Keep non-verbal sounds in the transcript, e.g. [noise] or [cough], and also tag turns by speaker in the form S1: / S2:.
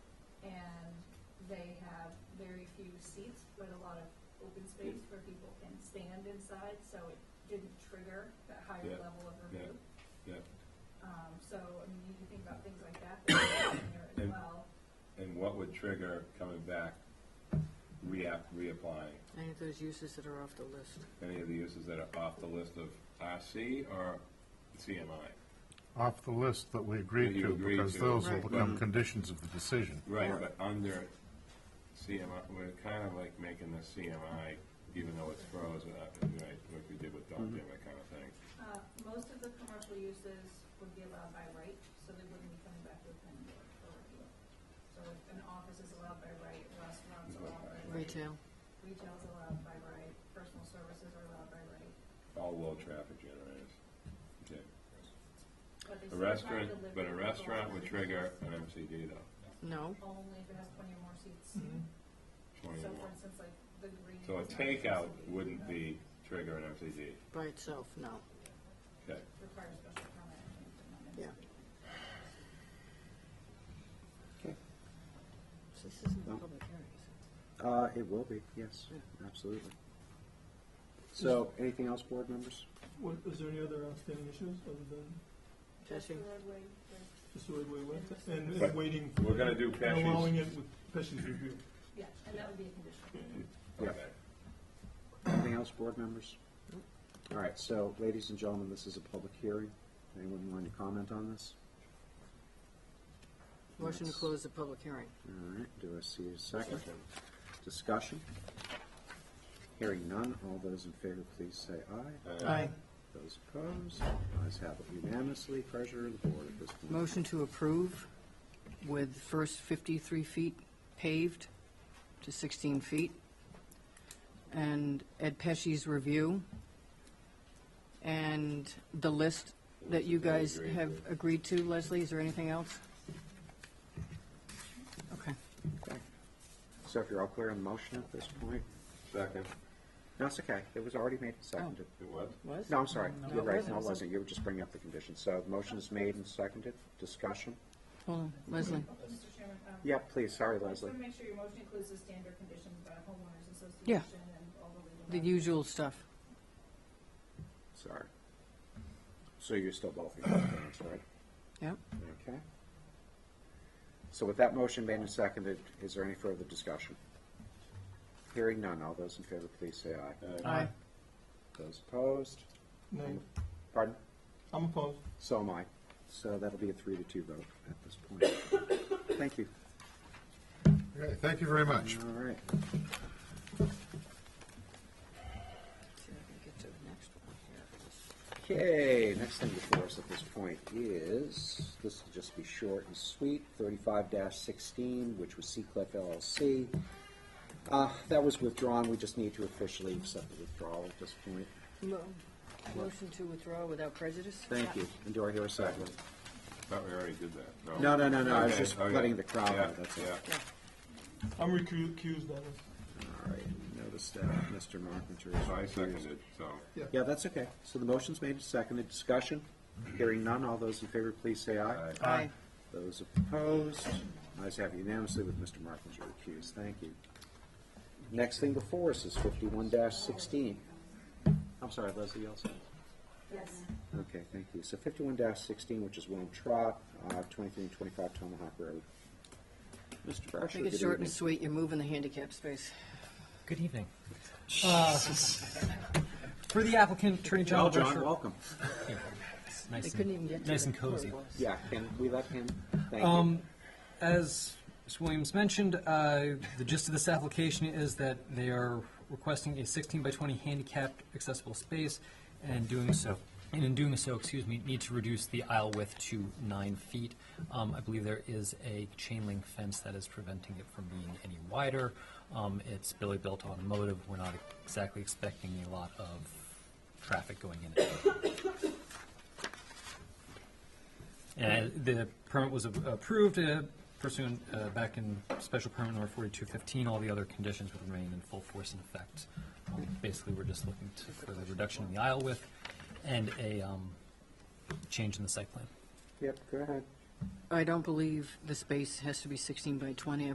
S1: seats with a lot of open space where people can stand inside, so it didn't trigger that higher
S2: Yeah.
S1: level of
S2: Yeah.
S1: review.
S2: Yeah,
S1: Um, so, I mean, you can think about things like
S2: [coughs]
S1: that that are in there as
S2: And-
S1: well.
S2: and what would trigger coming back, reapp, reapplying?
S3: Any of those uses that are off the list.
S2: Any of the uses that are off the list of RC or CMI?
S4: off the list that we agreed
S2: That you
S4: to,
S2: agreed to.
S4: because those will
S3: Right.
S4: become conditions of the decision.
S2: Right, but under CMI, we're kind of like making the CMI, even though it's frozen, uh, right, like we did with Doc Dimmer kind of thing.
S1: Uh, most of the commercial uses would be allowed by right, so they wouldn't be coming back to the planning board for review. So if an office is allowed by right, restaurants are allowed by right.
S3: Retail.
S1: Retail's allowed by right, personal services are allowed by right,
S2: All low traffic generators. Okay.
S1: but they still have
S2: A
S1: to
S2: restaurant,
S1: deliver.
S2: but a
S1: to
S2: restaurant
S1: all
S2: would
S1: the
S2: trigger
S1: businesses.
S2: an MCD though,
S3: No.
S1: Only if it has twenty or more seats.
S2: twenty
S1: So
S2: or
S1: for
S2: more.
S1: instance, like the green.
S2: So a
S1: is not
S2: takeout
S1: supposed to be,
S2: wouldn't
S1: uh,
S2: be trigger an MCD,
S3: By itself, no.
S2: okay?
S1: Requires special permit. I think, but not
S3: Yeah.
S1: necessarily.
S3: So This isn't a public hearing.
S5: Uh, it will be, yes, absolutely. So, anything else, board members?
S6: What, is there any other outstanding issues other than
S1: Just the
S3: Testing.
S1: roadway, there's
S6: just the way we went and,
S2: Right.
S6: and waiting?
S2: We're gonna do
S6: And allowing
S2: Pesci's.
S6: it with Pesci's review.
S1: Yeah, and that would be a condition.
S2: Okay.
S5: Anything else, board members? All right, so, ladies and gentlemen, this is a public hearing. Anyone want to comment on this?
S3: Motion to
S5: Yes.
S3: close the public hearing.
S5: All right, do I see a second? Discussion? Hearing none, all those in favor, please say aye.
S3: Aye.
S5: Those opposed, ayes have it unanimously. Pleasure of the board at this point.
S3: Motion to approve with first 53 feet paved to 16 feet, and Ed Pesci's review, and the list that you guys have agreed to. Leslie, is there anything else? Okay.
S5: So if you're all clear on the motion at this point?
S2: Second,
S5: No, it's okay. It was already made and seconded.
S2: it was?
S3: Was?
S5: No, I'm sorry.
S3: No,
S5: You're
S3: it
S5: right.
S3: wasn't.
S5: No, it wasn't. You were just bringing up the conditions. So the motion is made and seconded. Discussion?
S3: Hold on, Leslie.
S1: Mr. Chairman, um,
S5: Yeah, please. Sorry,
S1: I just
S5: Leslie.
S1: want to make sure your motion includes the standard conditions about homeowners
S3: Yeah.
S1: association and all the legal.
S3: The
S1: documents.
S3: usual stuff.
S5: Sorry. So you're still both in compliance, right?
S3: Yep.
S5: Okay. So with that motion made and seconded, is there any further discussion? Hearing none. All those in favor, please say aye.
S3: Aye.
S5: Those opposed?
S6: No,
S5: Pardon?
S6: I'm opposed.
S5: So am I. So that'll be a three to two vote at this point. Thank you.
S4: Okay, thank you very much.
S5: All right.
S3: See if I can get to the next one here.
S5: Okay, next thing before us at this point is, this will just be short and sweet, thirty-five sixteen, which was Seacliff LLC. Uh, that was withdrawn, we just need to officially accept the withdrawal at this point.
S3: Mo- Motion to withdraw without prejudice?
S5: Thank you, and do I hear a second?
S2: Thought we already did that.
S5: No, no, no, no, I was
S2: Okay,
S5: just
S2: okay.
S5: letting the crowd know,
S2: Yeah,
S5: that's it.
S2: yeah.
S6: I'm recu- recused on this.
S5: All right, notice that Mr. Marketer
S2: So I
S5: is
S2: seconded, so,
S5: Yeah, that's okay, so the motion's made and seconded, discussion, hearing none, all those in favor, please say aye.
S3: Aye.
S5: Those opposed, ayes have unanimously with Mr. Marklinger recused. Thank you. Next thing before us is fifty-one sixteen. I'm sorry, Leslie, you also?
S1: Yes.
S5: Okay, thank you. So fifty-one sixteen, which is William Trot, uh, twenty-three and twenty-five Tomahawk Road. Mr. Brasher,
S3: Make
S5: good
S3: it short and
S5: evening.
S3: sweet, you're moving the handicap space.
S7: Good evening. Uh, For the applicant, Attorney
S5: Well,
S7: General
S5: John,
S7: Brasher-
S5: welcome.
S3: They
S7: Nice
S3: couldn't
S7: and,
S3: even get to
S7: nice
S3: the
S7: and cozy.
S3: floor.
S5: Yeah, can we let him? Thank you.
S7: Um, as Ms. Williams mentioned, uh, the gist of this application is that they are requesting a 16 by 20 handicapped accessible space, and in doing so, and in doing so, excuse me, need to reduce the aisle width to nine feet. Um, I believe there is a chain link fence that is preventing it from being any wider. Um, it's Billy built automotive. We're not exactly expecting a lot of traffic going in. and out. And Uh, the permit was a- approved uh, pursuant, uh, back in special permit number forty-two fifteen, all the other conditions would remain in full force and effect. Um, Basically, we're just looking to, for the reduction in the aisle width and a, um, change in the site plan.
S5: Yep, go ahead.
S3: I don't believe the space has to be 16 by 20.